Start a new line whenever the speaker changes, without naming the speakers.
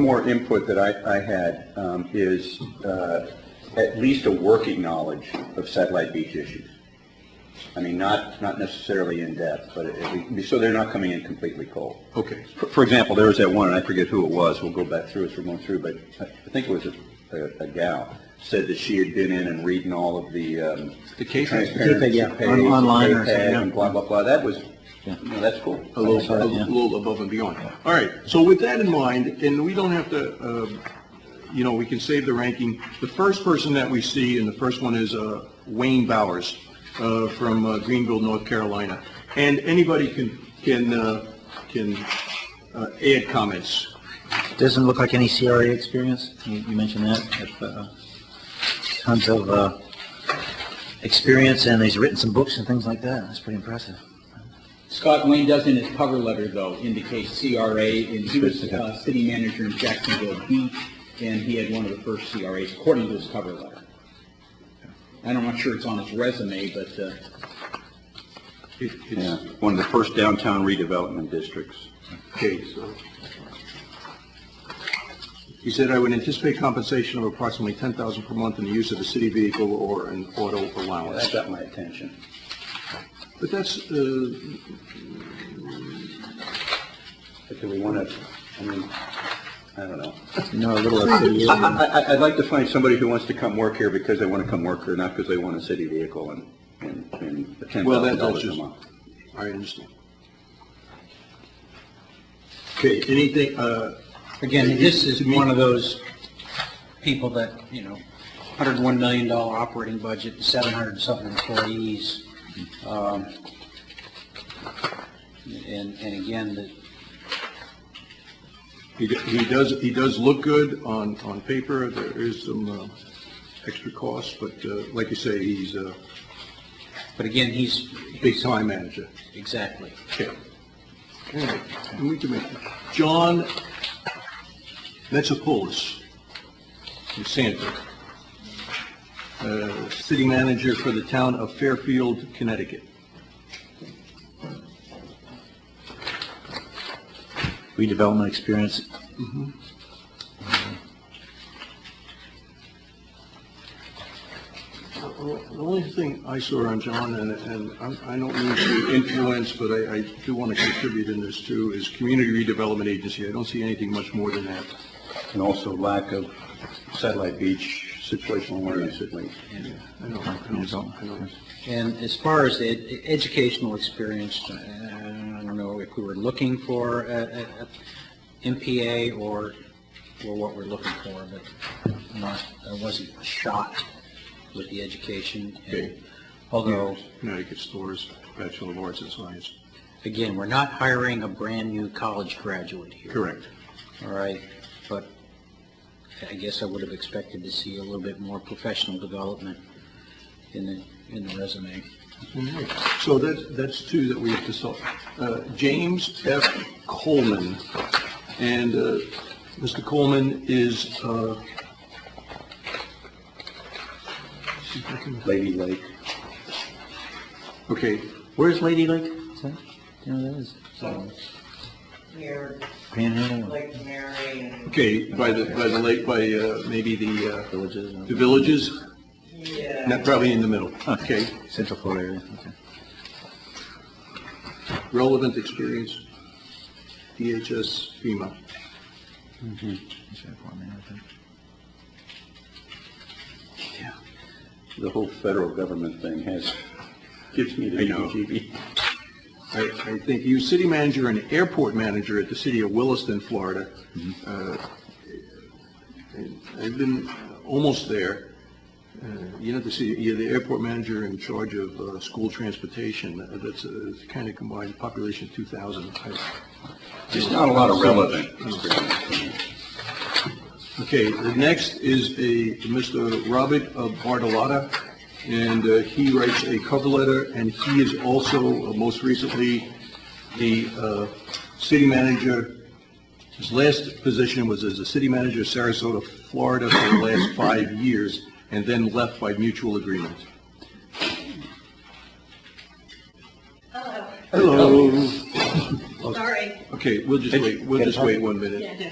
more input that I, I had um, is uh, at least a working knowledge of satellite beach issues. I mean, not, not necessarily in depth, but at least, so they're not coming in completely cold.
Okay.
For- For example, there was that one, and I forget who it was, we'll go back through as we're going through, but I I think it was a- a a gal, said that she had been in and reading all of the um,
The case-
transparency
yeah.
page,
On- online or
the
something,
pay
yeah.
and blah, blah, blah, that was, you know, that's cool.
a little,
Outside,
a
yeah.
little above and beyond. All right, so with that in mind, and we don't have to, uh, you know, we can save the ranking. The first person that we see, and the first one is uh, Wayne Bowers uh, from uh, Greenville, North Carolina. And anybody can, can, uh, can uh, add comments.
Doesn't look like any CRA experience. You, you mentioned that. If, uh, Tons of, uh, experience and he's written some books and things like that. That's pretty impressive.
Scott Wayne does in his cover letter, though, indicate CRA, and he was uh, city manager in Jacksonville Beach, and he had one of the first CRAs, according to his cover letter. And I'm not sure it's on his resume, but uh,
It-
Yeah,
it's-
one of the first downtown redevelopment districts.
Okay, so. He said, "I would anticipate compensation of approximately $10,000 per month in the use of a city vehicle or an auto allowance."
That got my attention.
But that's, uh,
But do we want to, I mean, I don't know.
You know, a little city.
I, I- I, I'd like to find somebody who wants to come work here because they want to come work here, not because they want a city vehicle and, and, and ten
Well, that-
thousand
that's
dollars a
just-
month.
I understand. Okay, anything, uh,
Again, this is one of those people that, you know, $101 million operating budget, 700 and something employees. um, And, and again, the-
he, d- he does, he does look good on, on paper, there is some, uh, extra costs, but, uh, like you say, he's a
but again, he's,
big time manager.
exactly.
Okay. All right, and we can make, John Metzopolis, from Sanford, uh, city manager for the town of Fairfield, Connecticut.
Redevelopment experience.
Well, The only thing I saw on John, and, and I- I don't mean to influence, but I, I do want to contribute in this too, is Community Redevelopment Agency. I don't see anything much more than that.
And also lack of satellite beach situational awareness at least.
I don't, I don't, I don't.
And as far as the ed- educational experience, uh, I don't know if we were looking for a- a- a MPA or, or what we're looking for, but not, I wasn't shot with the education. and-
Okay.
Although,
Connecticut Stores, Bachelor of Arts and Science.
again, we're not hiring a brand-new college graduate here.
Correct.
All right, but I guess I would have expected to see a little bit more professional development in the, in the resume.
So that's, that's two that we have to solve. Uh, James F. Coleman, and uh, Mr. Coleman is, uh, see if I can-
Lady Lake.
okay,
Where's Lady Lake? Is that, you know, that is
near
Panhandle or
Lake Mary and,
okay, by the, by the lake, by uh, maybe the, uh,
villages, or
The villages, not
yeah,
probably in the middle. Okay,
Central Florida area. Okay.
relevant experience, DHS, FEMA.
That's right, Florida, I think.
The whole federal government thing has, gives me the heebie
I, I think you, city manager and airport manager at the city of Williston, Florida. Uh, I've been almost there. Uh, You know, the city, you're the airport manager in charge of uh, school transportation. Uh, That's kind of combined, population 2,000. I-
Just not a lot of relevant
Okay, the next is a Mr. Robert uh, Bartolotta, and uh, he writes a cover letter, and he is also, uh, most recently, the uh, city manager. His last position was as a city manager of Sarasota, Florida, for the last five years, and then left by mutual agreement. Hello.
sorry.
Okay, we'll just wait, we'll just wait one minute.
Yeah.